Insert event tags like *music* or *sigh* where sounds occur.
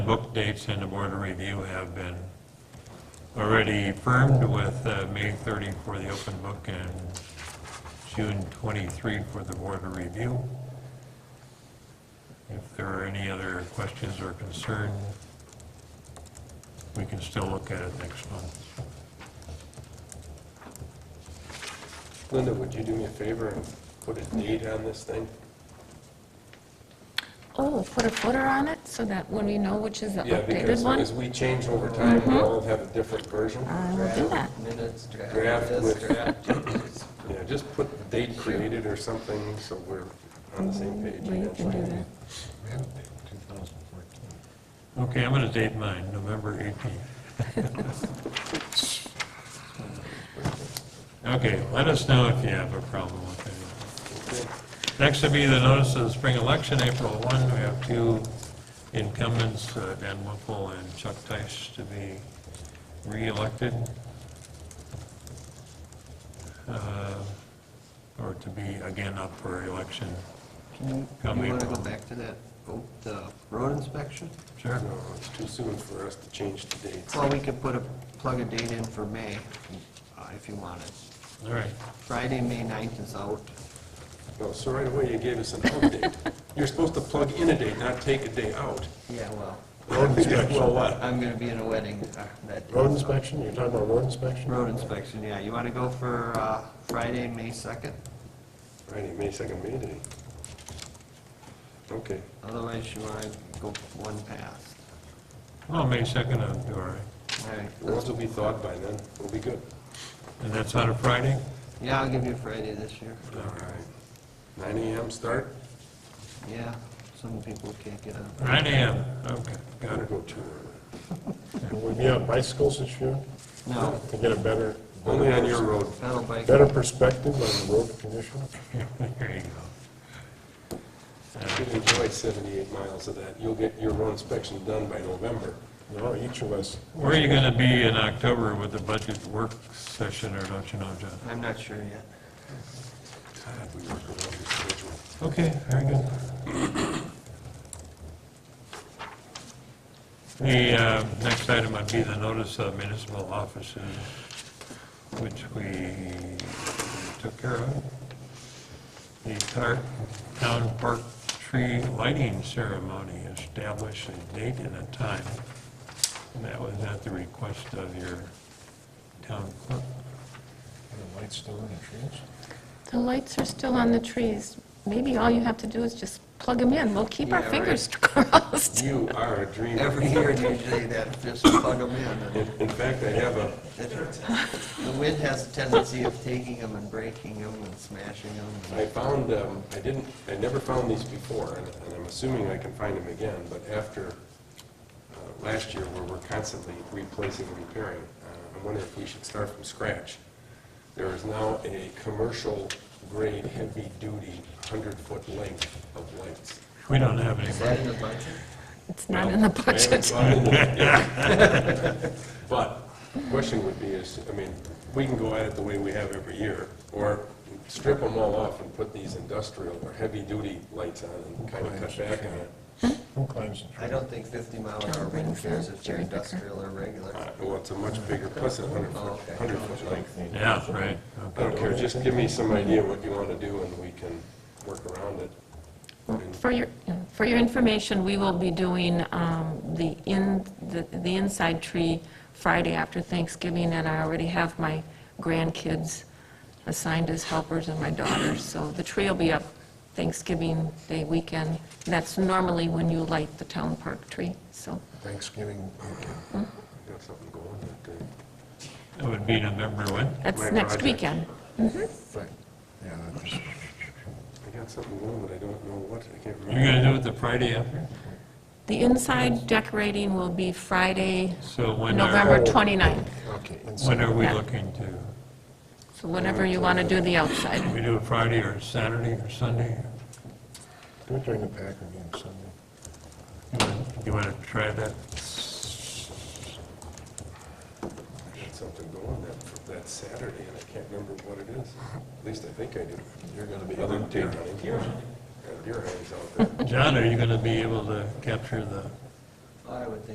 Book dates and the board of review have been already firmed with uh, May 30 for the open book and June 23 for the board of review. If there are any other questions or concern, we can still look at it next month. Linda, would you do me a favor and put a date on this thing? Oh, put a footer on it so that when we know which is the Yeah, updated because one? Mm-hmm. as we change over time, we'll all have a different version. I will do that. Minutes, draft. Draft this, with- draft that. Yeah, just put the date created or something, so we're on the same page. Well, you can do that. Okay, I'm going to date mine, November 18th. Okay, let us know if you have a problem with anything. Next would be the notice of the spring election, April 1. We have two incumbents, uh, Dan Whipple and Chuck Tice, to be re-elected. Uh, Or to be again up for election. Can you, Got me. you wanna go back to that, oh, the road inspection? Sure. No, it's too soon for us to change the dates. Well, we could put a, plug a date in for May, uh, if you wanted. All right. Friday, May 9th is out. No, so right away you gave us an out date. You're supposed to plug in a date, not take a day out. Yeah, well, Road inspection. Well, what? I'm gonna be in a wedding uh, that day. Road so- inspection, you're talking about road inspection? Road inspection, yeah. You wanna go for, uh, Friday, May 2nd? Friday, May 2nd, May Day. Okay. Otherwise, you wanna go one pass. Well, May 2nd, I'll do all right. All right. The roads will be thawed by then, we'll be good. And that's on a Friday? Yeah, I'll give you Friday this year. All right. 9 AM start? Yeah, some people can't get up. 9 AM, okay, got Gotta it. go too early. Will we be on bicycles this year No, to get a better, Only on your road. pedal bike. better perspective on the road condition? *laughs* There you go. You'll enjoy 78 miles of that. You'll get your road inspection done by November. No, each of us. Where are you going to be in October with the budget work session, or don't you know, John? I'm not sure yet. God, we work around the schedule. Okay, very good. The uh, next item would be the notice of municipal offices, which we took care of. The tar- town park tree lighting ceremony established a date and a time, and that was at the request of your town clerk. The lights still in the trees? The lights are still on the trees. Maybe all you have to do is just plug them in. We'll keep our Yeah, right. fingers *laughs* crossed. You are a dreamer. Every year usually that just plug them in. In and in fact, I have a, it- The wind has a tendency of taking them and breaking them and smashing them. I found, um, I didn't, I never found these before, and and I'm assuming I can find them again, but after uh, last year, where we're constantly replacing and repairing, uh, I wonder if we should start from scratch. There is now a commercial-grade, heavy-duty, 100-foot length of lights. We don't have any. Is that in the budget? It's not in the I haven't budget. gone into it yet. But, the question would be is, I mean, we can go at it the way we have every year, or strip them all off and put these industrial or heavy-duty lights on and kind of cut back on it. Who climbs the I tree? don't think 50 mile an hour wind cares if they're industrial or regular. Uh, Well, it's a much bigger, plus a Oh, 100-foot, okay. 100-foot length. Yeah, right. I don't care, just give me some idea what you want to do, and we can work around it. I mean, For your, for your information, we will be doing um, the in, the the inside tree Friday after Thanksgiving, and I already have my grandkids assigned as helpers and my daughters, so the tree will be up Thanksgiving Day weekend. That's normally when you light the town park tree, so. Thanksgiving weekend. Got something going that day. It would be November what? That's My next project. weekend. Right. Yeah, that's- I got something going, but I don't know what, I can't You're going remember. to do it the Friday after? The inside decorating will be Friday, So when November are, 29th, okay. when inside. are we Yeah. looking to? so whenever you want to do the outside. We do it Friday or Saturday or Sunday? Do it during the pack again Sunday. You wanna- You want to try that? I got something going that, that Saturday, and I can't remember what it is. At least I think I do. You're gonna be. Other than deer hunting. Deer hunting. Yeah, deer hunting's out there. John, are you going to be able to capture the Well, Oh, I would think